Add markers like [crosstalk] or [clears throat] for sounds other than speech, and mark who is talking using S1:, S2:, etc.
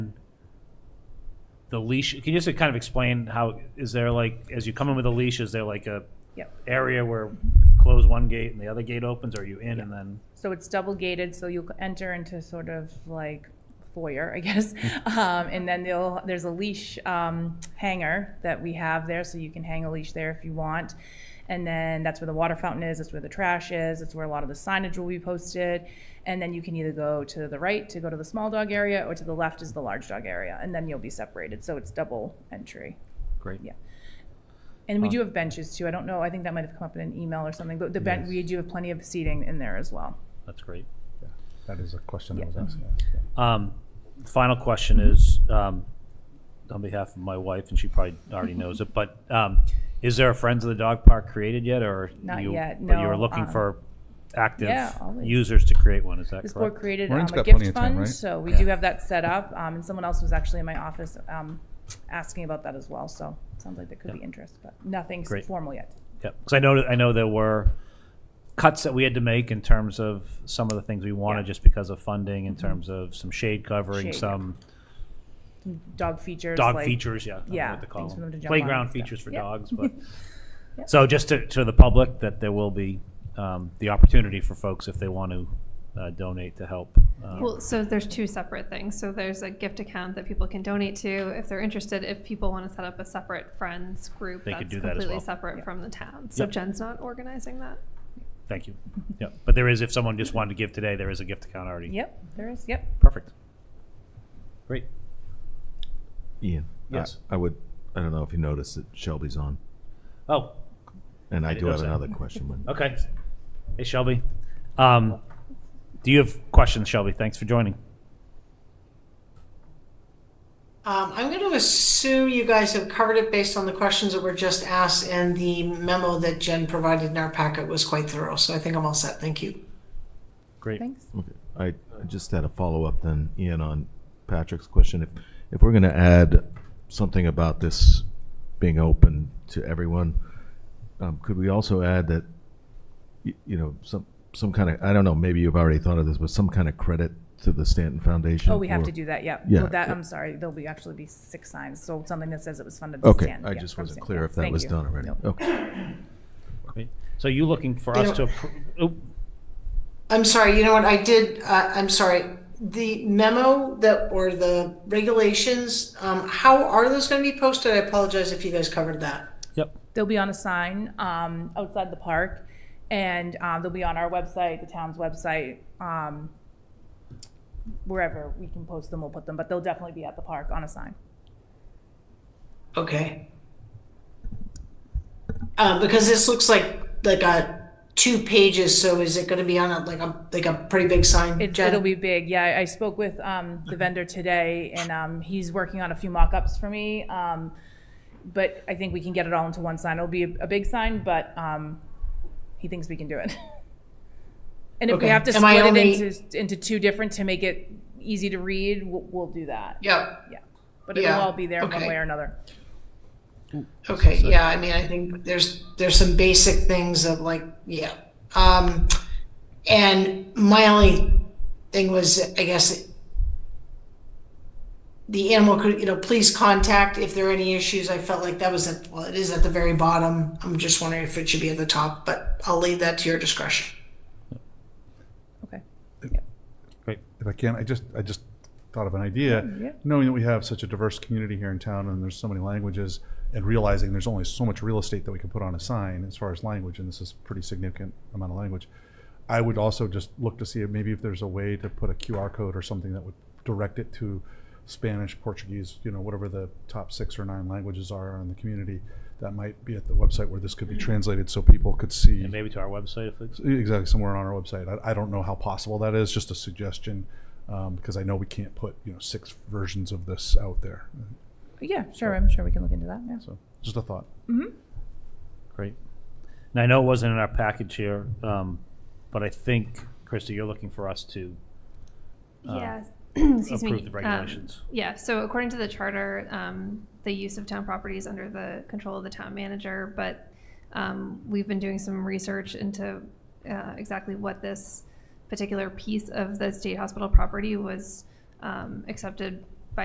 S1: the leash, can you just kind of explain how, is there like, as you come in with a leash, is there like a
S2: Yep.
S1: area where close one gate and the other gate opens, or are you in and then?
S2: So it's double gated, so you'll enter into sort of like foyer, I
S3: [laughs]
S2: guess. Um, and then they'll, there's a leash, um, hanger that we have there, so you can hang a leash there if you want. And then that's where the water fountain is, that's where the trash is, that's where a lot of the signage will be posted. And then you can either go to the right to go to the small dog area, or to the left is the large dog area, and then you'll be separated, so it's double entry.
S3: Great.
S2: Yeah. And we do have benches too, I don't know, I think that might have come up in an email or something, but the bench,
S3: Yes.
S2: we do have plenty of seating in there as well.
S1: That's great.
S3: That is a question I was
S2: Yeah.
S3: asking.
S1: Um, Final question is, um, on behalf of my wife, and she probably
S2: [laughs]
S1: already knows it, but um, is there a Friends of the Dog Park created yet, or?
S2: Not
S1: you-
S2: yet,
S1: But you were
S2: no,
S1: looking
S2: um,
S1: for active
S2: yeah, always.
S1: users to create one, is that
S2: This board
S1: correct?
S2: created um,
S4: Maureen's
S2: a
S4: got plenty
S2: gift
S4: of time,
S2: fund,
S4: right?
S2: so we do have that set up. Um, And someone else was actually in my office um, asking about that as well, so it sounds like there could be interest, but nothing
S1: Great.
S2: formal yet.
S1: Yep, because I know, I know there were cuts that we had to make in terms of some of the things we wanted,
S2: Yeah. Mm-hmm.
S1: just because of funding, in terms of some shade covering,
S2: Shade, yeah.
S1: some
S2: Dog features.
S1: dog
S2: like-
S1: features, yeah. I don't know
S2: yeah,
S1: what to call
S2: things for them to jump on and
S1: Playground
S2: stuff.
S1: features for
S2: Yeah.
S1: dogs, but,
S2: [laughs] Yeah.
S1: so just to, to the public, that there will be um, the opportunity for folks if they want to uh, donate to help. uh,
S5: Well, so there's two separate things. So there's a gift account that people can donate to if they're interested. If people want to set up a separate friends group,
S1: They
S5: that's
S1: could do that as
S5: completely
S1: well.
S5: separate
S2: Yeah.
S5: from the town. So
S1: Yep.
S5: Jen's not organizing that.
S1: Thank
S2: [laughs]
S1: you. Yeah, but there is, if someone just wanted to give today, there is a gift account already.
S2: Yep, there is, yep.
S1: Perfect. Great.
S4: Ian. I-
S1: Yes.
S4: I would, I don't know if you noticed that Shelby's on,
S1: Oh,
S4: and I
S1: didn't
S4: do have
S1: notice that.
S4: another
S1: [laughs]
S4: question. when-
S1: Okay. Hey, Shelby. Um, do you have questions, Shelby? Thanks for joining.
S6: Um, I'm going to assume you guys have covered it based on the questions that were just asked, and the memo that Jen provided in our packet was quite thorough. So I think I'm all set. Thank you.
S1: Great.
S2: Thanks.
S4: Okay. I I just had a follow-up then, Ian, on Patrick's question. If, if we're going to add something about this being open to everyone, um, could we also add that, y- you know, some, some kind of, I don't know, maybe you've already thought of this, but some kind of credit to the Stanton Foundation?
S2: Oh, we have
S4: for-
S2: to do that, yep.
S4: Yeah.
S2: Well, that, I'm sorry, there'll be, actually be six signs, so something that says it was funded. by
S4: Okay,
S2: Stan,
S4: I
S2: yeah,
S4: just
S2: from
S4: wasn't
S2: Stan,
S4: clear
S2: yeah.
S4: if that
S2: Thank
S4: was
S2: you.
S4: done already.
S2: Nope.
S4: Okay.
S1: Great. So you looking for
S6: You
S1: us
S6: know-
S1: to, appro- oh,
S6: I'm sorry. You know what? I did. Uh, I'm sorry. The memo that or the regulations. Um, how are those going to be posted? I apologize if you guys covered that.
S1: yep.
S2: They'll be on a sign um, outside the park, and um, they'll be on our website, the town's website, um, wherever we can post them, we'll put them, but they'll definitely be at the park on a sign.
S6: Okay. Uh, because this looks like like a two pages. So is it going to be on a, like a like a pretty big sign?
S2: It,
S6: Jen?
S2: it'll be big, yeah. I- I spoke with um, the vendor today, and um, he's working on a few mock-ups for me, um, but I think we can get it all into one sign. It'll be a, a big sign, but um, he thinks we can do it. [laughs] and if
S6: Okay.
S2: we have to
S6: Am I
S2: split
S6: only-
S2: it into into two different to make it easy to read, we'll, we'll do that.
S6: Yep.
S2: Yeah, but it'll
S6: Yeah,
S2: all be there one
S6: okay.
S2: way or another.
S6: Okay, yeah, I mean, I think there's, there's some basic things of like, yeah. Um, and my only thing was, I guess, the animal could, you know, please contact if there are any issues. I felt like that was at, well, it is at the very bottom. I'm just wondering if it should be at the top, but I'll leave that to your discretion.
S2: Okay.
S3: If I can, I just, I just thought of an idea.
S2: yeah.
S3: Knowing that we have such a diverse community here in town and there's so many languages and realizing there's only so much real estate that we can put on a sign as far as language, and this is a pretty significant amount of language. I would also just look to see if maybe if there's a way to put a QR code or something that would direct it to Spanish, Portuguese, you know, whatever the top six or nine languages are in the community. That might be at the website where this could be
S2: Mm-hmm.
S3: translated so people could see.
S1: And maybe to our website if it's,
S3: Exactly, somewhere on our website. I, I don't know how possible that is, just a suggestion, um, because I know we can't put, you know, six versions of this out there.
S2: But yeah, sure. I'm sure we can look into that. Yeah.
S3: So, just a thought.
S1: great. And I know it wasn't in our package here, um, but I think, Krista, you're looking for us to Uh,
S5: yeah. [clears throat] Excuse me.
S1: approve the
S5: Um,
S1: regulations.
S5: Yeah, so according to the charter, um, the use of town property is under the control of the town manager, but, um, we've been doing some research into, uh, exactly what this particular piece of the state hospital property was, um, accepted